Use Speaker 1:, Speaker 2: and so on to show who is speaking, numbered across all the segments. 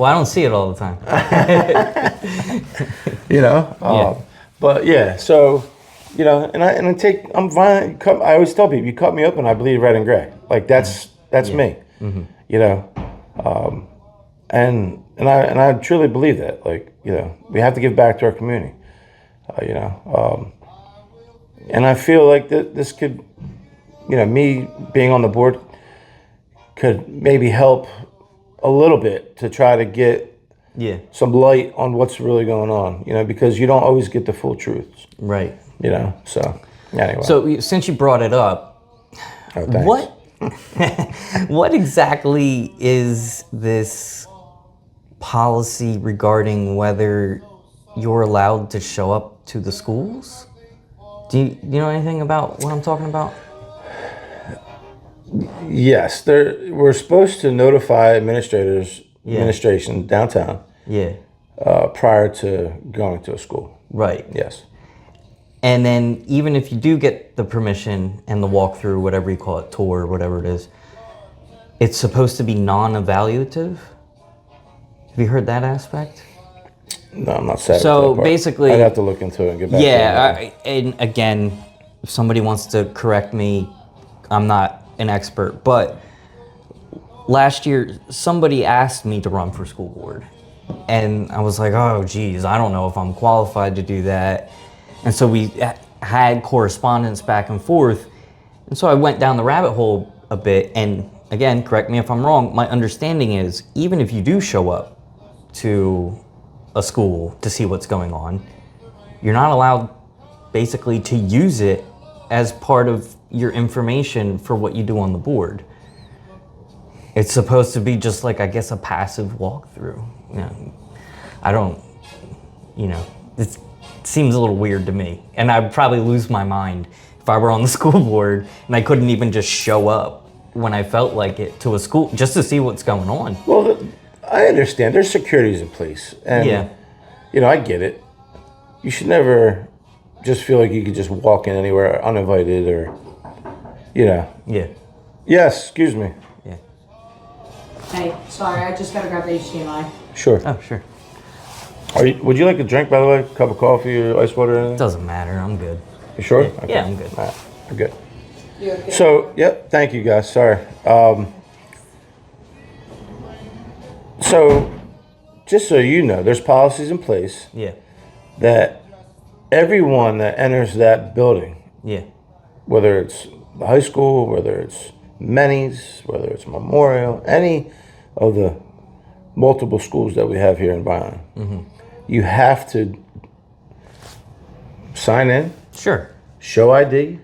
Speaker 1: Well, I don't see it all the time.
Speaker 2: you know. Um,
Speaker 1: Yeah.
Speaker 2: But yeah, so you know, and I and I take I'm violent. Cut, I always tell people, you cut me open, I bleed red and gray. Like that's that's me. You know, um, and and I and I truly believe that. Like you know, we have to give back to our community. Uh, you know, um, and I feel like that this could, you know, me being on the board could maybe help a little bit to try to get
Speaker 1: yeah.
Speaker 2: some light on what's really going on, you know, because you don't always get the full truth,
Speaker 1: Right.
Speaker 2: you know. So, anyway.
Speaker 1: So you- since you brought it up,
Speaker 2: Oh, thanks.
Speaker 1: what what exactly is this policy regarding whether you're allowed to show up to the schools? Do you, you know anything about what I'm talking about?
Speaker 2: Yes, there. We're supposed to notify administrators,
Speaker 1: Yeah.
Speaker 2: administration downtown
Speaker 1: Yeah.
Speaker 2: uh, prior to going to a school.
Speaker 1: Right.
Speaker 2: Yes.
Speaker 1: And then even if you do get the permission and the walkthrough, whatever you call it, tour, whatever it is, it's supposed to be non-evaluative. Have you heard that aspect?
Speaker 2: No, I'm not sad.
Speaker 1: So,
Speaker 2: about that part.
Speaker 1: basically-
Speaker 2: I'd have to look into it and get back.
Speaker 1: yeah,
Speaker 2: To you.
Speaker 1: I, and again, if somebody wants to correct me, I'm not an expert, but last year somebody asked me to run for school board. And I was like, "Oh geez, I don't know if I'm qualified to do that." And so we ha- had correspondence back and forth. And so I went down the rabbit hole a bit and again, correct me if I'm wrong, my understanding is even if you do show up to a school to see what's going on, you're not allowed basically to use it as part of your information for what you do on the board. It's supposed to be just like I guess a passive walkthrough. You know, I don't, you know, it seems a little weird to me, and I'd probably lose my mind if I were on the school board and I couldn't even just show up when I felt like it to a school just to see what's going on.
Speaker 2: Well, th- I understand. There's securities in place, and
Speaker 1: Yeah,
Speaker 2: you know, I get it. You should never just feel like you could just walk in anywhere uninvited, or you know.
Speaker 1: yeah,
Speaker 2: Yes, excuse me.
Speaker 1: yeah.
Speaker 3: Hey, sorry, I just gotta grab the HDMI.
Speaker 2: Sure.
Speaker 1: Oh, sure.
Speaker 2: Are you, would you like a drink, by the way? Cup of coffee or ice water or anything?
Speaker 1: Doesn't matter. I'm good.
Speaker 2: You sure?
Speaker 1: Yeah, I'm good.
Speaker 2: All right, I'm good.
Speaker 3: You okay?
Speaker 2: So, yep, thank you guys. Sorry. Um, so, just so you know, there's policies in place
Speaker 1: Yeah,
Speaker 2: that everyone that enters that building,
Speaker 1: yeah,
Speaker 2: whether it's the high school, whether it's Many's, whether it's Memorial, any of the multiple schools that we have here in Byron,
Speaker 1: Mm-hmm.
Speaker 2: you have to sign in,
Speaker 1: sure.
Speaker 2: show ID,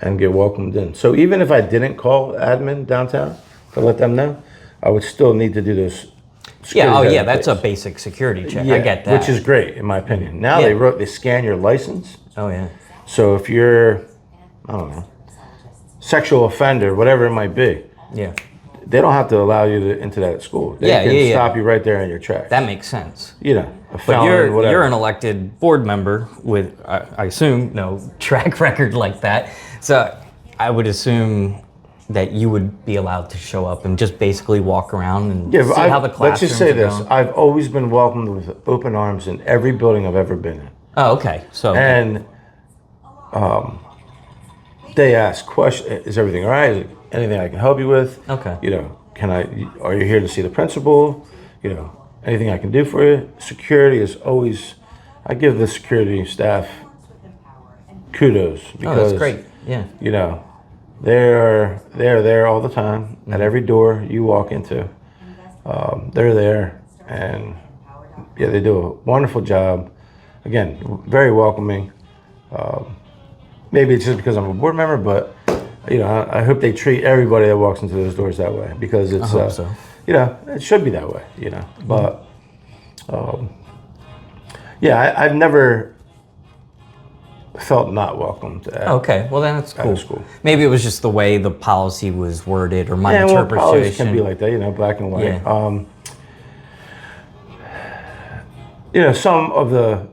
Speaker 2: and get welcomed in. So even if I didn't call admin downtown to let them know, I would still need to do this.
Speaker 1: Yeah,
Speaker 2: security
Speaker 1: oh
Speaker 2: that
Speaker 1: yeah,
Speaker 2: in
Speaker 1: that's a
Speaker 2: place.
Speaker 1: basic security check. I
Speaker 2: Yeah,
Speaker 1: get that.
Speaker 2: which is great in my opinion. Now they
Speaker 1: Yeah.
Speaker 2: wrote they scan your license.
Speaker 1: oh yeah,
Speaker 2: So if you're, I don't know, sexual offender, whatever it might be,
Speaker 1: yeah,
Speaker 2: they don't have to allow you to, into that school. They
Speaker 1: Yeah,
Speaker 2: can
Speaker 1: yeah, yeah.
Speaker 2: stop you right there in your track.
Speaker 1: that makes sense.
Speaker 2: you know, a
Speaker 1: But
Speaker 2: felon,
Speaker 1: you're
Speaker 2: whatever.
Speaker 1: you're an elected board member with I, I assume no track record like that. So I would assume that you would be allowed to show up and just basically walk around and
Speaker 2: yeah,
Speaker 1: see
Speaker 2: but I,
Speaker 1: how the
Speaker 2: let's
Speaker 1: classrooms
Speaker 2: just say
Speaker 1: are
Speaker 2: this:
Speaker 1: going.
Speaker 2: I've always been welcomed with open arms in every building I've ever been in,
Speaker 1: Oh, okay. So
Speaker 2: and um, they ask questions: Is everything all right? Is there anything I can help you with?
Speaker 1: Okay.
Speaker 2: You know, can I? Are you here to see the principal? You know, anything I can do for you? Security is always. I give the security staff kudos
Speaker 1: oh,
Speaker 2: because
Speaker 1: that's great. Yeah.
Speaker 2: you know, they're they're there all the time at every door you walk into. Um, they're there, and yeah, they do a wonderful job. Again, very welcoming. Um, maybe it's just because I'm a board member, but you know, I, I hope they treat everybody that walks into those doors that way because it's
Speaker 1: hope
Speaker 2: uh,
Speaker 1: so.
Speaker 2: you know it should be that way. You know, but um, yeah, I, I've never felt not welcomed. At,
Speaker 1: Okay. Well, then that's cool.
Speaker 2: was cool.
Speaker 1: Maybe it was just the way the policy was worded or my
Speaker 2: Yeah, well, colleges
Speaker 1: interpretation.
Speaker 2: can be like that, you know, black and white.
Speaker 1: Yeah.
Speaker 2: Um, you know, some of the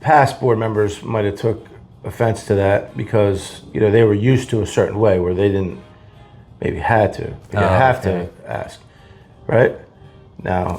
Speaker 2: past board members might have took offense to that because you know they were used to a certain way where they didn't maybe had to, they didn't
Speaker 1: Oh,
Speaker 2: have
Speaker 1: okay.
Speaker 2: to ask, right? Now,